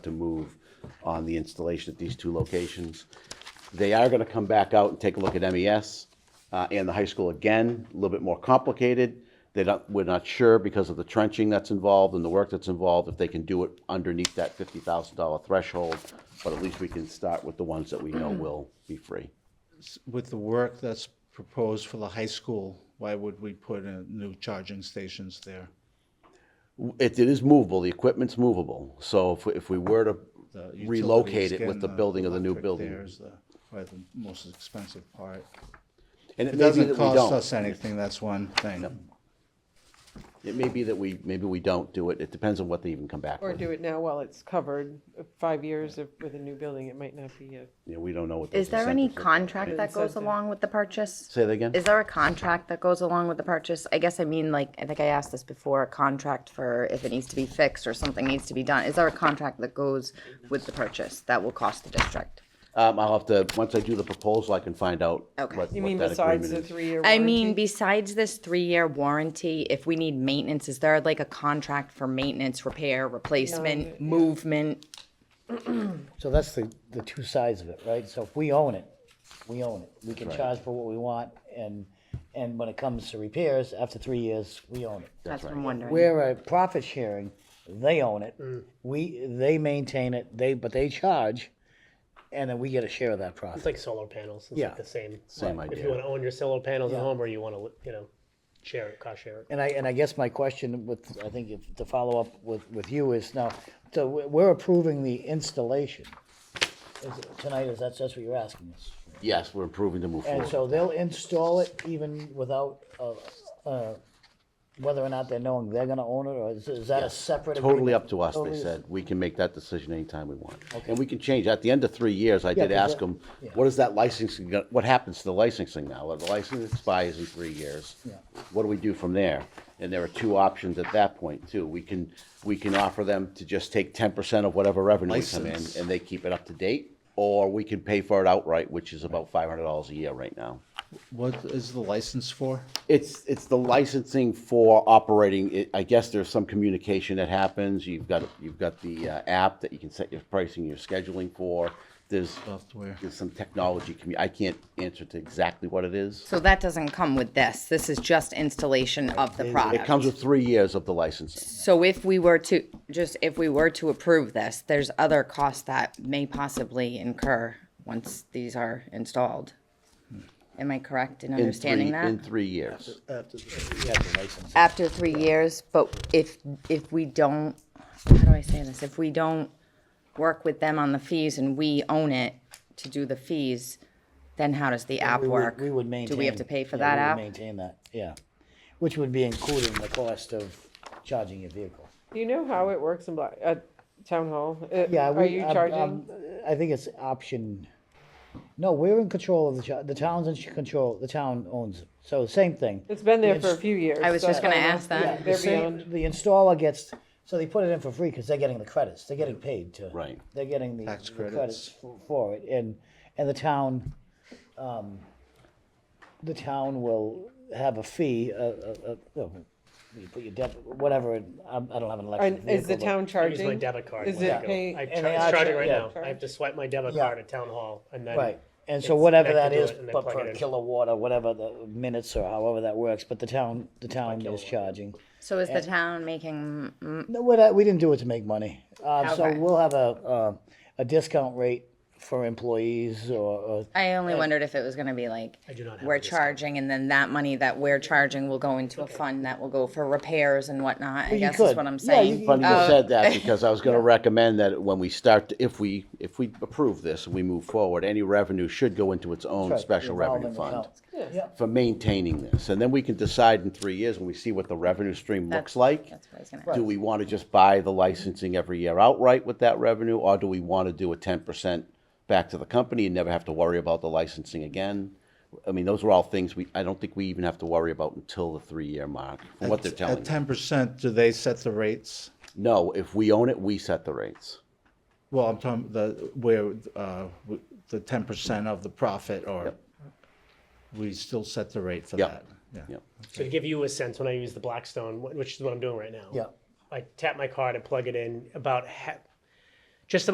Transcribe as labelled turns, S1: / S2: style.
S1: to move on the installation at these two locations. They are gonna come back out and take a look at MES, uh, and the high school again, a little bit more complicated. They don't, we're not sure because of the trenching that's involved and the work that's involved, if they can do it underneath that fifty thousand dollar threshold. But at least we can start with the ones that we know
S2: Mm-hmm.
S1: will be free.
S2: With the work that's proposed for the high school, why would we put in new charging stations there?
S1: It, it is movable, the equipment's movable, so if, we- if we were to
S2: The Uh, utilities,
S1: relocate it with
S2: getting
S1: the building of the new
S2: electric there
S1: building.
S2: is the- Probably the most expensive part.
S1: And it may be that
S2: It doesn't
S1: we
S2: cost
S1: don't.
S2: us anything, that's one thing.
S1: It may be that we, maybe we don't do it, it depends on what they even come back
S3: Or
S1: with.
S3: do it now while it's covered, Uh, five years of- with a new building, it might not be a,
S1: Yeah, we don't know what those
S4: Is there any
S1: incentives look like.
S4: contract that goes
S3: Incentive.
S4: along with the purchase?
S1: Say that again?
S4: Is there a contract that goes along with the purchase? I guess I mean, like, I think I asked this before, a contract for if it needs to be fixed or something needs to be done. Is there a contract that goes with the purchase that will cost the district?
S1: Um, I'll have to, once I do the proposal, I can find out what,
S4: Okay.
S1: what that
S3: you mean
S1: agreement is.
S3: besides the three-year
S4: I
S3: warranty?
S4: mean, besides this three-year warranty, if we need maintenance, is there like a contract for maintenance, repair, replacement, movement?
S5: So that's the, the two sides of it, right? So if we own it, we own it. We can charge for what we want, and, and when it comes to repairs, after three years, we own it.
S4: That's what I'm wondering.
S5: We're a profit sharing, they own it, we, they maintain it, they, but they charge, and then we get a share of that
S6: It's
S5: profit.
S6: like solar panels. It's
S5: Yeah.
S6: like the same.
S1: Same
S6: If
S1: idea.
S6: you want to own your solar panels
S5: Yeah.
S6: at home, or you want to, you know, share it, cost share it.
S5: And I, and I guess my question with, I think if, to follow up with, with you is now, so we- we're approving the installation. Is it- Tonight, is that, that's what you're asking us?
S1: Yes, we're improving to move
S5: And
S1: forward.
S5: so they'll install it even without, uh, uh, whether or not they're knowing they're gonna own it, or is, is that a separate?
S1: Totally
S5: agreement?
S1: up to us, they
S5: Totally is-
S1: said. We can make that decision anytime we want. And we can change. At the end of three years, I did
S5: 'cause
S1: ask
S5: that-
S1: them, what is that licensing, go- what happens to the licensing now? Well, The license expires in three years. What do we do from there? And there are two options at that point, too. We can, we can offer them to just take ten percent of whatever revenue we come in,
S2: License.
S1: and they keep it up to date, or we can pay for it outright, which is about five hundred dollars a year right now.
S2: What is the license for?
S1: It's, it's the licensing for operating, it- I guess there's some communication that happens, you've got, you've got the uh, app that you can set your pricing, your scheduling for, there's,
S2: Software.
S1: there's some technology, commu- I can't answer to exactly what it is.
S4: So that doesn't come with this. This is just installation of the product.
S1: It comes with three years of the licensing.
S4: So if we were to, just if we were to approve this, there's other costs that may possibly incur once these are installed. Am I correct in
S1: in
S4: understanding
S1: three- In
S4: that?
S1: three years.
S5: After the- yeah, the license.
S4: After three years, but if, if we don't, how do I say this? If we don't work with them on the fees and we own it to do the fees, then how does the app
S5: We
S4: work?
S5: would, we would maintain.
S4: Do we have to pay for that
S5: yeah, we would
S4: app?
S5: Maintain that, yeah, which would be included in the cost of charging your vehicle.
S3: Do you know how it works in Black, at Town Hall? Uh,
S5: Yeah.
S3: Are
S5: we-
S3: you
S5: um,
S3: charging?
S5: um, I think it's option, no, we're in control of the, cha- the town's in control, the town owns it, so same thing.
S3: It's been there for a few years.
S4: I was
S3: so
S4: just gonna
S3: don't know.
S4: ask that.
S3: Yeah,
S4: The
S3: They're
S5: The same-
S3: beyond.
S5: The installer gets, so they put it in for free because they're getting the credits, they're getting paid to.
S1: Right.
S5: They're getting the.
S2: Tax
S5: the
S2: credits.
S5: for- For it, and, and the town, um, the town will have a fee, uh, uh, uh, well, you put your debit, whatever, I'm- I don't have an electric
S3: And
S5: vehicle.
S3: Is the
S5: but-
S3: town
S6: I use
S3: charging?
S6: my debit card.
S3: Is
S6: when I
S3: it
S6: go.
S3: pay-
S6: I
S5: And they
S6: charge,
S5: are
S6: it's charging
S5: char-
S6: right
S5: yeah.
S6: now. I have to swipe my debit
S5: Yeah.
S6: card at town hall, and then
S5: Right, and so
S6: it's
S5: whatever
S6: connected
S5: that
S6: to
S5: is,
S6: it, and then
S5: but
S6: plug it
S5: per
S6: in.
S5: kilowatt or whatever the minutes or however that works, but the town, the town is charging.
S4: So is the town making
S5: No, we're not, we didn't do it to make money. Uh, so
S4: Okay.
S5: we'll have a, uh, a discount rate for employees or, or
S4: I only wondered if it was gonna be like,
S6: do not have
S4: we're
S6: a discount.
S4: charging, and then that money that we're charging will go into a fund that will go for repairs and whatnot, I
S5: you
S4: guess is
S5: could.
S4: what I'm
S5: Yeah,
S4: saying.
S5: you
S4: Oh,
S5: could.
S1: Funny you said that, because I was gonna recommend that when we start, to- if we, if we approve this, and we move forward, any revenue should go into its own
S5: Right,
S1: special revenue
S5: revolving
S1: fund.
S5: accounts.
S1: for maintaining this, and then we can decide in three years when we see what the revenue stream looks like.
S4: That's what I was gonna
S1: Do
S4: ask.
S1: we want to just buy the licensing every year outright with that revenue, or do we want to do a ten percent back to the company and never have to worry about the licensing again? I mean, those are all things we, I don't think we even have to worry about until the three-year mark, from what they're telling
S2: At
S1: us.
S2: ten percent, do they set the rates?
S1: No, if we own it, we set the rates.
S2: Well, I'm talking the, where, uh, w- the ten percent of the profit or we still set the rate for
S1: Yep.
S2: that. Yeah.
S1: Yep.
S6: So to give you a sense, when I use the Blackstone, wh- which is what I'm doing right now.
S5: Yeah.
S6: I tap my card and plug it in. About ha-